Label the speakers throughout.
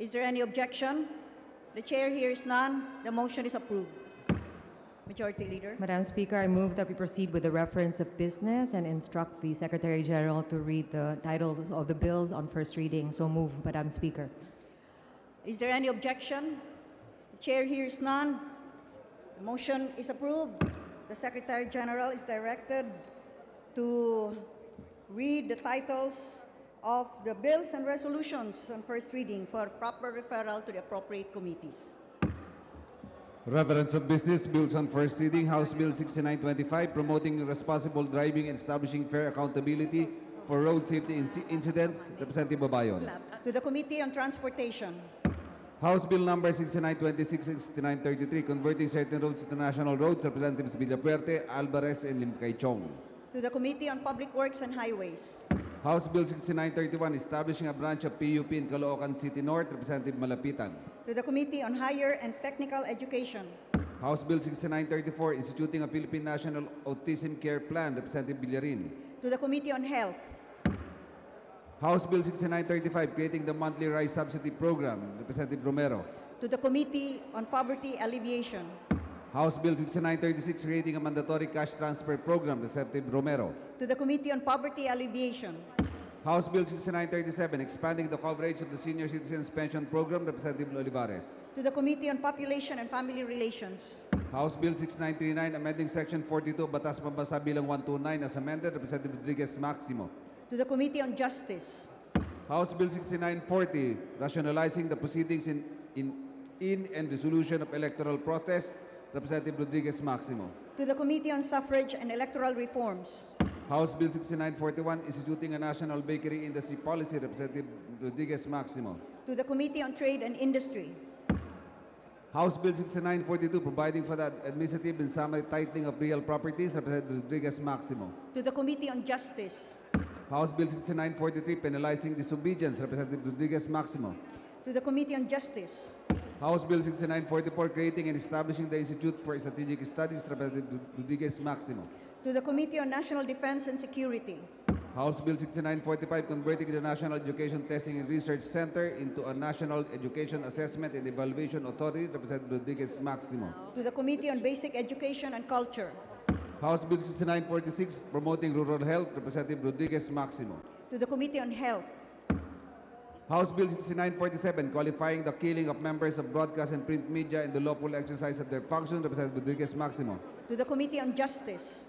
Speaker 1: Is there any objection? The chair hears none. The motion is approved. Majority Leader.
Speaker 2: Madam Speaker, I move that we proceed with the reference of business and instruct the Secretary General to read the title of the bills on first reading. So move, Madam Speaker.
Speaker 1: Is there any objection? The chair hears none. The motion is approved. The Secretary General is directed to read the titles of the bills and resolutions on first reading for proper referral to the appropriate committees.
Speaker 3: Reference of Business Bills on First Reading, House Bill 6925, Promoting Responsible Driving and Establishing Fair Accountability for Road Safety Inci- Incidents, Representative Babayon.
Speaker 1: To the Committee on Transportation,
Speaker 3: House Bill Number 6926 and 6933, Converting Certain Roads to National Roads, Representatives Villapuerte, Alvarez, and Lim Kay Chong.
Speaker 1: to the Committee on Public Works and Highways,
Speaker 3: House Bill 6931, Establishing a Branch of PUP in Caloocan City North, Representative Malapitan.
Speaker 1: to the Committee on Higher and Technical Education,
Speaker 3: House Bill 6934, Instituting a Philippine National Autism Care Plan, Representative Villarin.
Speaker 1: to the Committee on Health,
Speaker 3: House Bill 6935, creating the monthly rice subsidy program, Representative Romero.
Speaker 1: to the Committee on Poverty Alleviation,
Speaker 3: House Bill 6936, creating a mandatory cash transfer program, Representative Romero.
Speaker 1: to the Committee on Poverty Alleviation,
Speaker 3: House Bill 6937, expanding the coverage of the senior citizens pension program, Representative Olivares.
Speaker 1: to the Committee on Population and Family Relations,
Speaker 3: House Bill 6939, amending section 42, Batas Pambansa Bilang 129, as amended, Representative Rodriguez Maximo.
Speaker 1: to the Committee on Justice,
Speaker 3: House Bill 6940, rationalizing the proceedings in, in, in and resolution of electoral protests, Representative Rodriguez Maximo.
Speaker 1: to the Committee on Suffrage and Electoral Reforms,
Speaker 3: House Bill 6941, instituting a national bakery industry policy, Representative Rodriguez Maximo.
Speaker 1: to the Committee on Trade and Industry,
Speaker 3: House Bill 6942, providing for the administrative and summary titling of real properties, Representative Rodriguez Maximo.
Speaker 1: to the Committee on Justice,
Speaker 3: House Bill 6943, penalizing disobedience, Representative Rodriguez Maximo.
Speaker 1: to the Committee on Justice,
Speaker 3: House Bill 6944, creating and establishing the Institute for Strategic Studies, Representative Rodriguez Maximo.
Speaker 1: to the Committee on National Defense and Security,
Speaker 3: House Bill 6945, converting the National Education Testing and Research Center into a National Education Assessment and Evaluation Authority, Representative Rodriguez Maximo.
Speaker 1: to the Committee on Basic Education and Culture,
Speaker 3: House Bill 6946, promoting rural health, Representative Rodriguez Maximo.
Speaker 1: to the Committee on Health,
Speaker 3: House Bill 6947, qualifying the killing of members of broadcast and print media in the lawful exercise of their function, Representative Rodriguez Maximo.
Speaker 1: to the Committee on Justice,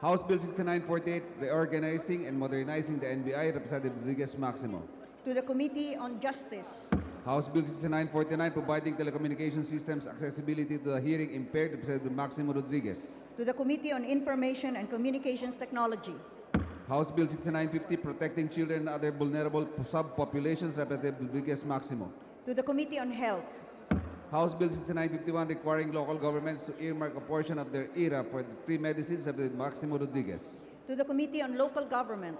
Speaker 3: House Bill 6948, reorganizing and modernizing the NBI, Representative Rodriguez Maximo.
Speaker 1: to the Committee on Justice,
Speaker 3: House Bill 6949, providing telecommunication systems accessibility to the hearing impaired, Representative Maximo Rodriguez.
Speaker 1: to the Committee on Information and Communications Technology,
Speaker 3: House Bill 6950, protecting children and other vulnerable subpopulations, Representative Rodriguez Maximo.
Speaker 1: to the Committee on Health,
Speaker 3: House Bill 6951, requiring local governments to earmark a portion of their ERA for the free medicines, Representative Maximo Rodriguez.
Speaker 1: to the Committee on Local Government,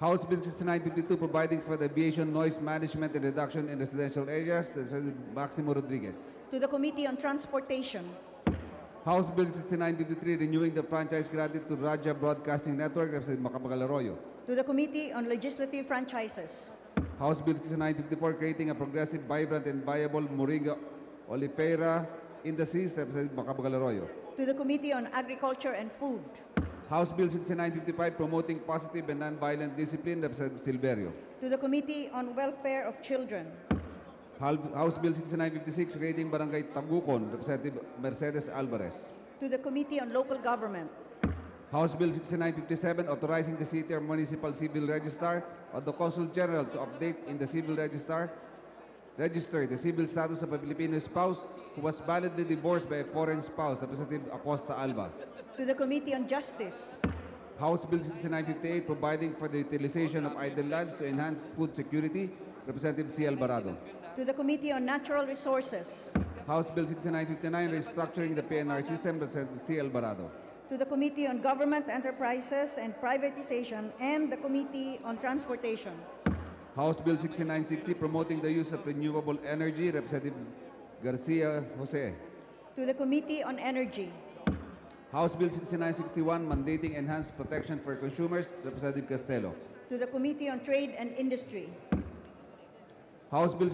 Speaker 3: House Bill 6952, providing for the aviation noise management and reduction in residential areas, Representative Maximo Rodriguez.
Speaker 1: to the Committee on Transportation,
Speaker 3: House Bill 6953, renewing the franchise granted to Raja Broadcasting Network, Representative Macapagal Arroyo.
Speaker 1: to the Committee on Legislative Franchises,
Speaker 3: House Bill 6954, creating a progressive, vibrant, and viable Moringa Oliveira Industries, Representative Macapagal Arroyo.
Speaker 1: to the Committee on Agriculture and Food,
Speaker 3: House Bill 6955, promoting positive and nonviolent discipline, Representative Silverio.
Speaker 1: to the Committee on Welfare of Children,
Speaker 3: Hal- House Bill 6956, creating Barangay Tagukon, Representative Mercedes Alvarez.
Speaker 1: to the Committee on Local Government,
Speaker 3: House Bill 6957, authorizing the city or municipal civil registrar or the consul general to update in the civil registrar register the civil status of a Filipino spouse who was validly divorced by a foreign spouse, Representative Acosta Alba.
Speaker 1: to the Committee on Justice,
Speaker 3: House Bill 6958, providing for the utilization of idle lands to enhance food security, Representative C. Alvarado.
Speaker 1: to the Committee on Natural Resources,
Speaker 3: House Bill 6959, restructuring the PNR system, Representative C. Alvarado.
Speaker 1: to the Committee on Government Enterprises and Privatization, and the Committee on Transportation,
Speaker 3: House Bill 6960, promoting the use of renewable energy, Representative Garcia Jose.
Speaker 1: to the Committee on Energy,
Speaker 3: House Bill 6961, mandating enhanced protection for consumers, Representative Castelo.
Speaker 1: to the Committee on Trade and Industry,
Speaker 3: House Bill